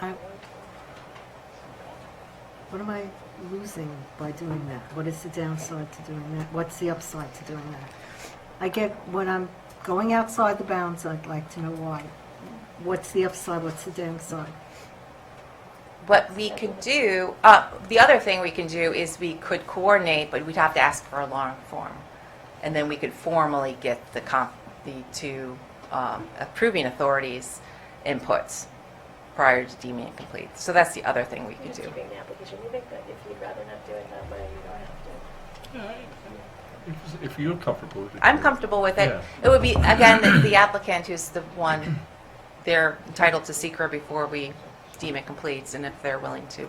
I, what am I losing by doing that? What is the downside to doing that? What's the upside to doing that? I get when I'm going outside the bounds, I'd like to know why. What's the upside? What's the downside? What we could do, uh, the other thing we can do is we could coordinate, but we'd have to ask for a long form. And then we could formally get the comp, the two um, approving authorities' inputs prior to deeming it complete. So that's the other thing we You're could just do. keeping the application, you think that if you'd rather not do it that way, you don't have to. If- If you're comfortable with it. I'm comfortable with it. Yeah. It would be, again, the- the applicant who's the one, they're entitled to seeker before we deem it complete. And if they're willing to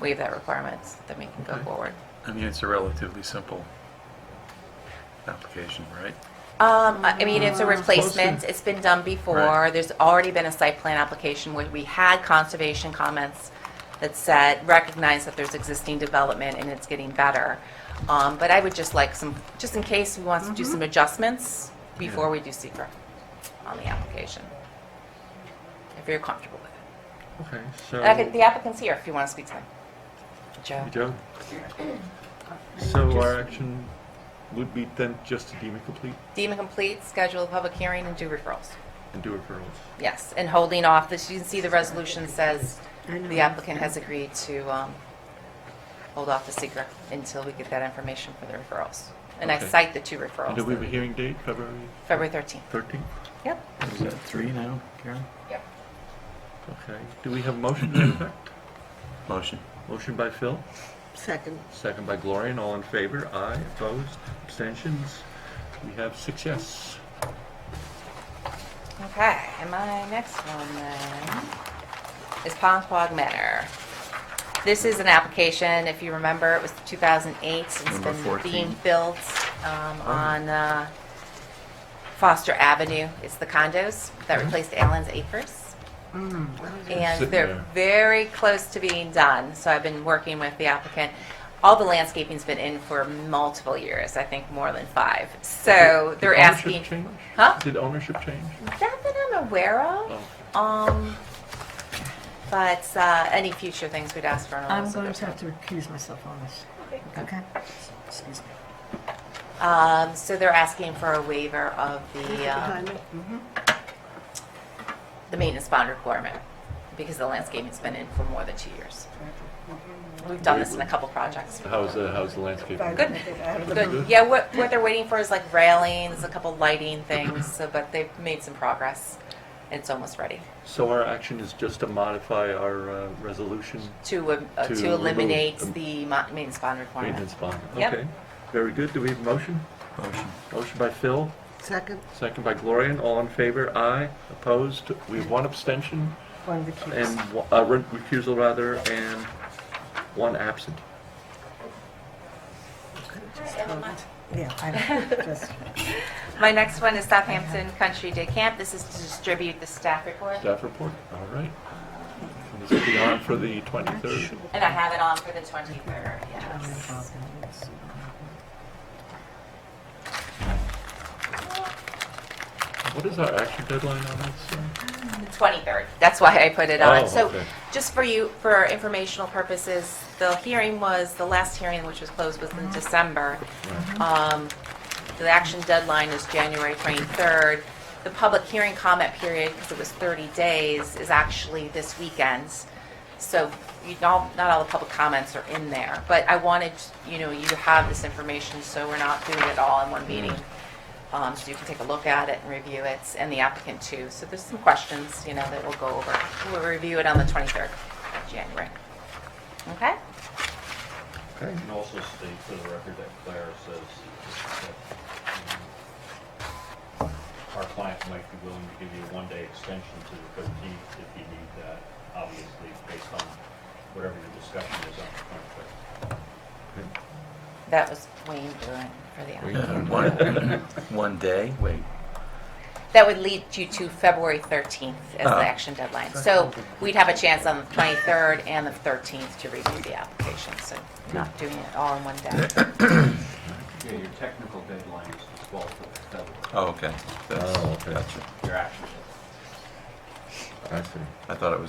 waive that requirement, then we can go Okay. forward. I mean, it's a relatively simple application, right? Um, I I mean, it's a Mm, replacement, closer. it's been done before, Right. there's already been a site plan application where we had conservation comments that said, recognize that there's existing development and it's getting better. Um, but I would just like some, just in case we want to do some adjustments before we do secret on the application. If you're comfortable with it. Okay, so. And I could- The applicant's here if you want to speak to them. Joe? You do? So our action would be then just to deem it complete Deem it complete, schedule a public hearing and do referrals. and do referrals. Yes, and holding off, this, you can see the resolution says I know. the applicant has agreed to um, hold off the secret until we get that information for the referrals. And I Okay. cite the two And do we have a referrals, hearing date, February February 13th. 13th? Yep. Is that three now, Karen? Yep. Okay, do we have a motion to that effect? Motion. Motion by Phil, Second. second by Gloria, and all in favor? Aye, opposed, abstentions? We have six yes. Okay, and my next one then is Ponquag Manor. This is an application, if you remember, it was 2008. It's Number been 14. being built um, Oh. on uh, Foster Avenue. It's the condos that replaced Allen's Acres. And Mm-hmm. Mm. Sitting they're there. very close to being done, so I've been working with the applicant. All the landscaping's been in for multiple years, I think more than five. So Did they're ownership asking. change? Huh? Did ownership change? Not that I'm aware Oh. of. Um, but uh, any future things we'd ask for. an I'm oral going to submission. have to recuse myself on this. Okay? Um, so they're asking for a waiver of the uh, Mhm. the maintenance bond requirement because the landscaping's been in for more than two years. We've done this in a couple projects. How's the, how's the landscape? Good, good. Yeah, what what they're waiting for is like railings, a couple lighting things. So, but they've made some progress. It's almost ready So our action is just to modify our uh, resolution to uh, uh, To to, remove eliminate the- the mo- maintenance bond requirement. maintenance bond. Yep. Okay, very good. Do we have a motion? Motion. Motion by Phil, Second. second by Gloria. All in favor? Aye. Opposed? We have one abstention One recuse. and, one- uh, re- recusal rather, and one absent. Yeah, I just, My next one is Southampton Country Day Camp. This is to distribute the staff report, Staff report? All right. And This will be on for the 23rd. and I have it on for the 23rd, yes. What is our action deadline on this? uh? The 23rd, that's why I put it on. Oh, So okay. just for you, for informational purposes, the hearing was, the last hearing which was closed was in December. Um, The action deadline is January 23rd. The public hearing comment period, because it was 30 days, is actually this weekend. So you don't, not all the public comments are in there. But I wanted, you know, you to have this information, so we're not doing it all in one meeting. Mm. Um, So you can take a look at it and review it, and the applicant too. So there's some questions, you know, that we'll go over. We'll review it on the 23rd of January. Okay? Okay. can also state for the record that Claire says that um, our client might be willing to give you a one-day extension to the fifteenth if you need that, obviously based on whatever your discussion is on the contract. That was Wayne Bruin for the applicant. uh? One one day? Wait. That would lead you to February 13th as the Uh-huh. action deadline. So we'd have a chance on the 23rd and the 13th to review the application, so not doing it all in one day. Yeah, your technical deadline is the twelfth of February, Oh, okay. That's- Oh, okay. Gotcha. your action I deadline. see. I thought it was